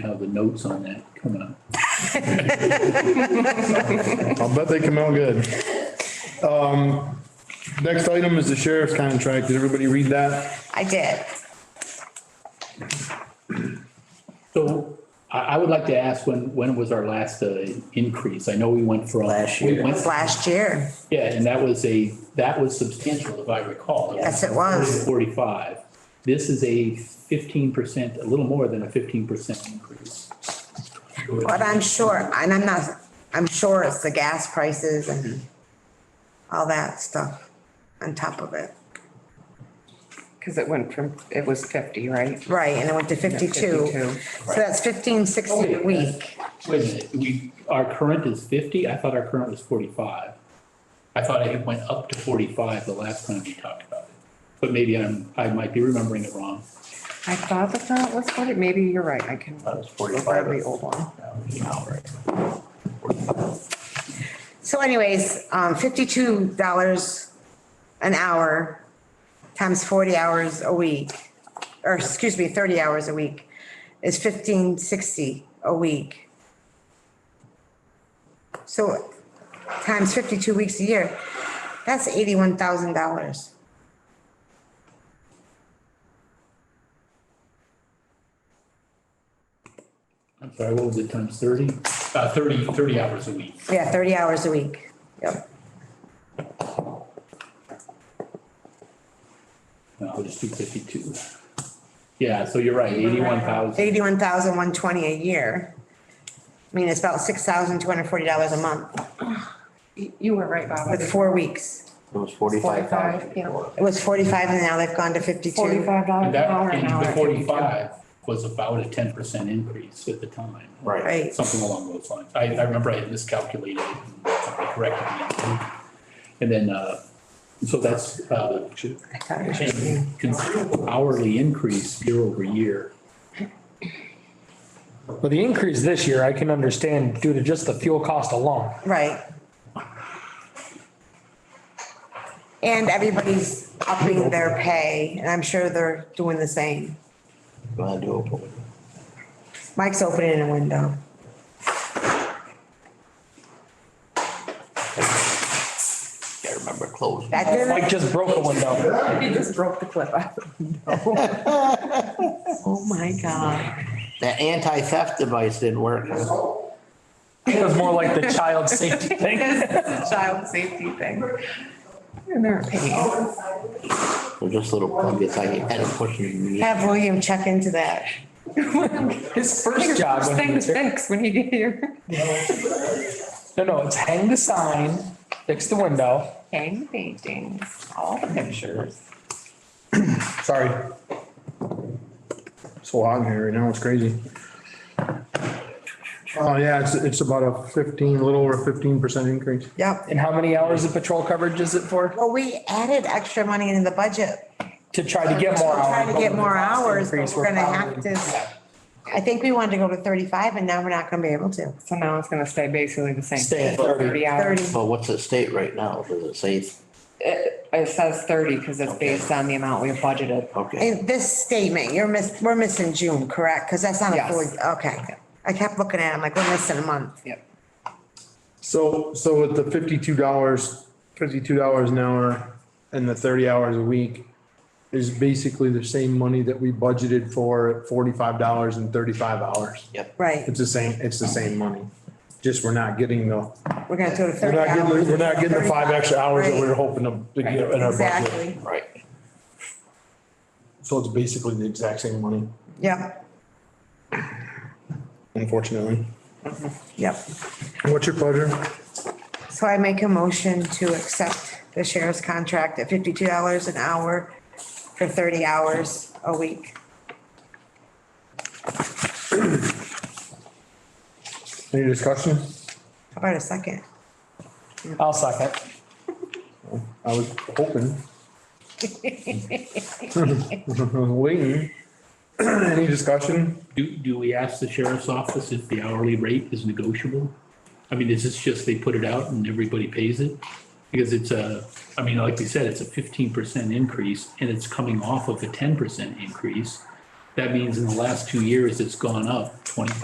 how the notes on that come out. I'll bet they come out good. Um, next item is the sheriff's contract. Did everybody read that? I did. So I, I would like to ask when, when was our last uh, increase? I know we went from. Last we year. went- It was last year. Yeah, and that was a, that was substantial, if I recall. Yes, it was. Forty-five. This is a fifteen percent, a little more than a fifteen percent increase. But I'm sure, and I'm not, I'm sure it's the gas prices and all that stuff on top of it. Because it went from, it was fifty, right? Right, and it went to fifty-two. 52. So that's fifteen sixty a week. Wait a minute, we, our current is fifty? I thought our current was forty-five. I thought it went up to forty-five the last time we talked about it. But maybe I'm, I might be remembering it wrong. I thought the front was forty, maybe you're right, I can. That was look 45. at The old one. an hour. So anyways, um, fifty-two dollars an hour times forty hours a week, or excuse me, thirty hours a week is fifteen sixty a week. So times fifty-two weeks a year, that's eighty-one thousand dollars. I'm sorry, what was it, times thirty? Uh, thirty, thirty hours a week. Yeah, thirty hours a week. Yep. No, I'll just do fifty-two. Yeah, so you're right, eighty-one thousand. Eighty-one thousand one twenty a year. I mean, it's about six thousand two hundred forty dollars a month You- You were right, Bob. with four weeks. It was forty-five thousand. 45, yeah. It was forty-five and now they've gone to fifty-two. Forty-five And dollars an that, hour and an hour. the forty-five was about a ten percent increase at the time. Right. Right. Something along those lines. I, I remember I had miscalculated it and somebody corrected me. And then, uh, so that's, uh, a considerable hourly increase year over year. Well, the increase this year, I can understand due to just the fuel cost alone. Right. And everybody's upping their pay, and I'm sure they're doing the same. Gonna do it. Mike's opening a window. I remember closing. That didn't, Oh, Mike just broke a window. He just broke the clip off. oh my God. That anti-theft device didn't work. It was more like the child safety thing. Child safety thing. And they're paying. They're just little plug, it's like you had to push it. Have William check into that. His first job First when he thing to was here. fix when you get here. No, no, it's hang the sign, fix the window. Hang the paintings, all the pictures. Sorry. So hot in here right now, it's crazy. Oh, yeah, it's, it's about a fifteen, a little over fifteen percent increase. Yep. And how many hours of patrol coverage is it for? Well, we added extra money into the budget. To try to get more We're hours. Trying to get more hours, but Increase, we're gonna have probably- to, I think we wanted to go to thirty-five, and now we're not gonna be able to. So now it's gonna stay basically the same. Stay at 30. hours. Thirty. But what's at state right now? Does it say, It, it says thirty because it's based on the amount we budgeted. okay, In this statement, you're miss, we're missing June, correct? Because that's not a Yes. fully, okay. I kept looking at it, I'm like, we're missing a month. Yep. So, so with the fifty-two dollars, fifty-two dollars an hour and the thirty hours a week is basically the same money that we budgeted for at forty-five dollars and thirty-five hours. yep. Right, It's the same, it's the same money. Just we're not getting the, we're gonna go to we're thirty not getting, hours. the- we're not getting the five extra hours that we were Right. hoping to to get in our budget. Exactly, Right. So it's basically the exact same money, yep, unfortunately. yep. What's your pleasure? So I make a motion to accept the sheriff's contract at fifty-two dollars an hour for thirty hours a week. Any discussion? How about a second? I'll second. I was hoping. Waiting. Any discussion? Do, do we ask the sheriff's office if the hourly rate is negotiable? I mean, is this just they put it out and everybody pays it? Because it's a, I mean, like we said, it's a fifteen percent increase and it's coming off of a ten percent increase. That means in the last two years, it's gone up twenty